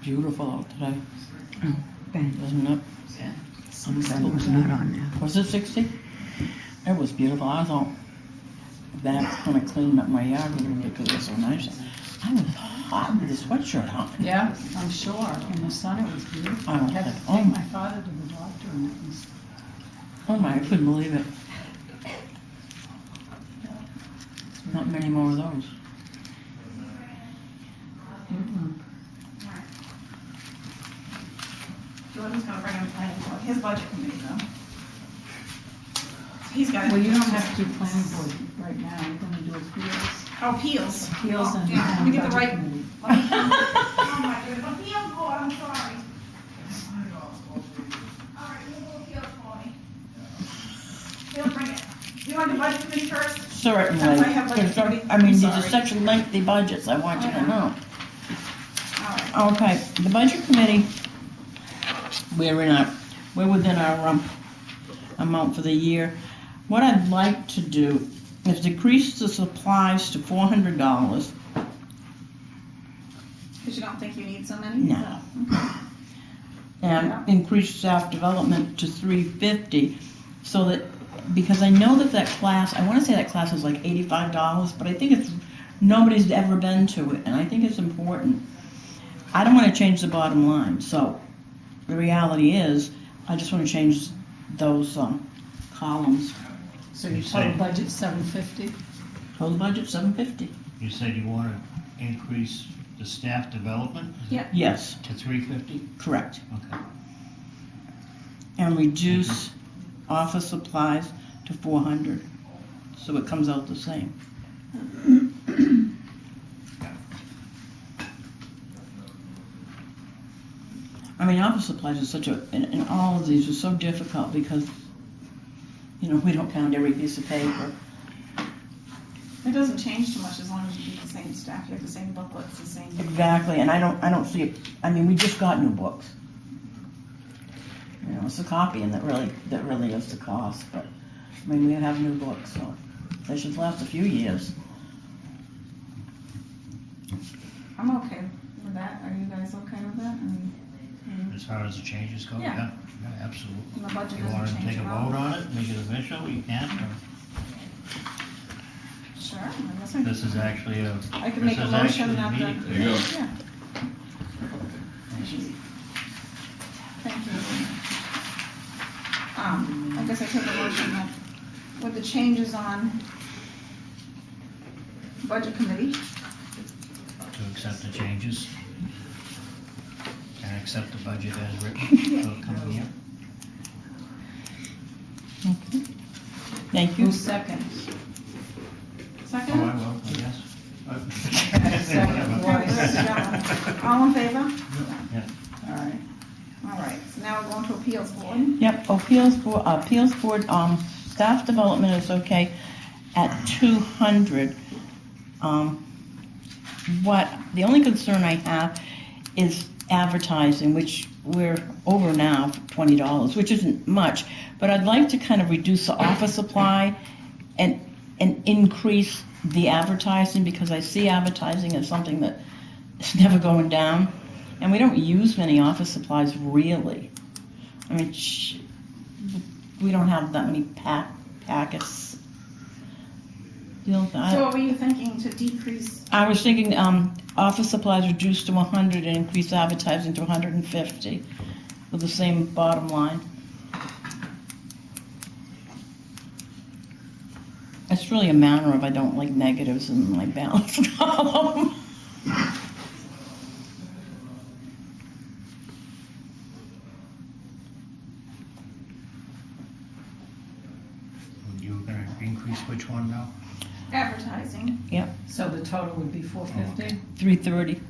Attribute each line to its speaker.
Speaker 1: beautiful out today,
Speaker 2: Ben,
Speaker 1: isn't it?
Speaker 3: Yeah.
Speaker 2: Ben was not on there.
Speaker 1: Was it sixty? It was beautiful. I thought that's gonna clean up my yard a little bit because it's so nice. I was hot with a sweatshirt on.
Speaker 3: Yeah, I'm sure. In the sun, it was beautiful.
Speaker 1: I
Speaker 3: I
Speaker 1: don't
Speaker 3: had
Speaker 1: think-
Speaker 3: to
Speaker 1: oh
Speaker 3: take
Speaker 1: my-
Speaker 3: my father to the doctor and it was,
Speaker 1: Oh my, I couldn't believe it. Not many more of those.
Speaker 3: mm-mm.
Speaker 4: Jordan's gonna bring him planning board, his budget committee though. He's got.
Speaker 3: Well, you don't have to do planning board right now, you're gonna do appeals,
Speaker 4: Oh, Peels.
Speaker 3: appeals and.
Speaker 4: Yeah, let me get the right.
Speaker 3: committee.
Speaker 4: Oh my goodness, appeals board, I'm sorry. All right, you go appeals for me. He'll bring it. You want the budget committee first?
Speaker 1: Certainly,
Speaker 4: Sometimes I have, like,
Speaker 1: 'cause I- I
Speaker 4: I'm
Speaker 1: mean, these are
Speaker 4: sorry.
Speaker 1: such lengthy budgets, I want you
Speaker 4: I
Speaker 1: to
Speaker 4: know.
Speaker 1: know.
Speaker 4: All right.
Speaker 1: Okay, the budget committee, we're in our, we're within our um, amount for the year. What I'd like to do is decrease the supplies to four hundred dollars.
Speaker 4: Cause you don't think you need so many?
Speaker 1: No. And increase staff development to three fifty, so that, because I know that that class, I wanna say that class is like eighty-five dollars, but I think it's, nobody's ever been to it, and I think it's important. I don't wanna change the bottom line, so the reality is, I just wanna change those, um, columns.
Speaker 3: So your total budget's seven fifty?
Speaker 1: Total budget, seven fifty.
Speaker 5: You said you want to increase the staff development?
Speaker 4: Yeah.
Speaker 1: Yes,
Speaker 5: To three fifty?
Speaker 1: correct.
Speaker 5: Okay.
Speaker 1: and reduce office supplies to four hundred, so it comes out the same. I mean, office supplies is such a, and, and all of these are so difficult because, you know, we don't count every piece of paper.
Speaker 4: It doesn't change too much as long as you keep the same staff, you have the same booklets, the same.
Speaker 1: Exactly, and I don't, I don't see it, I mean, we just got new books. You know, it's the copying that really, that really is the cost, but, I mean, we have new books, so they should last a few years.
Speaker 4: I'm okay with that, are you guys okay with that? And
Speaker 5: As far as the changes go?
Speaker 4: Yeah.
Speaker 5: Yeah, absolutely.
Speaker 4: and the budget
Speaker 5: You want
Speaker 4: doesn't
Speaker 5: to
Speaker 4: change
Speaker 5: take a
Speaker 4: at
Speaker 5: vote
Speaker 4: all?
Speaker 5: on it, make it official, you can, or
Speaker 4: Sure, I guess I.
Speaker 5: this is actually a,
Speaker 4: I can
Speaker 5: This
Speaker 4: make a
Speaker 5: is
Speaker 4: motion
Speaker 5: actually
Speaker 4: that the.
Speaker 5: meeting.
Speaker 6: There you go.
Speaker 4: Yeah. Thank you. Um, I guess I took a motion that with the changes on budget committee,
Speaker 5: to accept the changes. And accept the budget as written for the coming year.
Speaker 1: Thank you.
Speaker 3: Who seconds?
Speaker 5: Oh, I
Speaker 4: second?
Speaker 5: will, I guess.
Speaker 3: Second,
Speaker 4: Okay,
Speaker 3: why?
Speaker 4: let's go. All in favor?
Speaker 5: Yeah.
Speaker 4: All right, all right, so now we're going to appeals board.
Speaker 1: Yep, appeals board, appeals board, um, staff development is okay at two hundred. Um, what, the only concern I have is advertising, which we're over now for twenty dollars, which isn't much. But I'd like to kind of reduce the office supply and, and increase the advertising because I see advertising as something that is never going down. And we don't use many office supplies really. I mean, sh- we don't have that many pack packets. You know,
Speaker 4: So
Speaker 1: I,
Speaker 4: what were you thinking to decrease,
Speaker 1: I was thinking um, office supplies reduced to 100 and increase advertising to 150 with the same bottom line. It's really a matter of I don't like negatives in my balance column.
Speaker 5: You were gonna increase which one now?
Speaker 4: advertising,
Speaker 3: So the total would be four fifty?
Speaker 1: 330.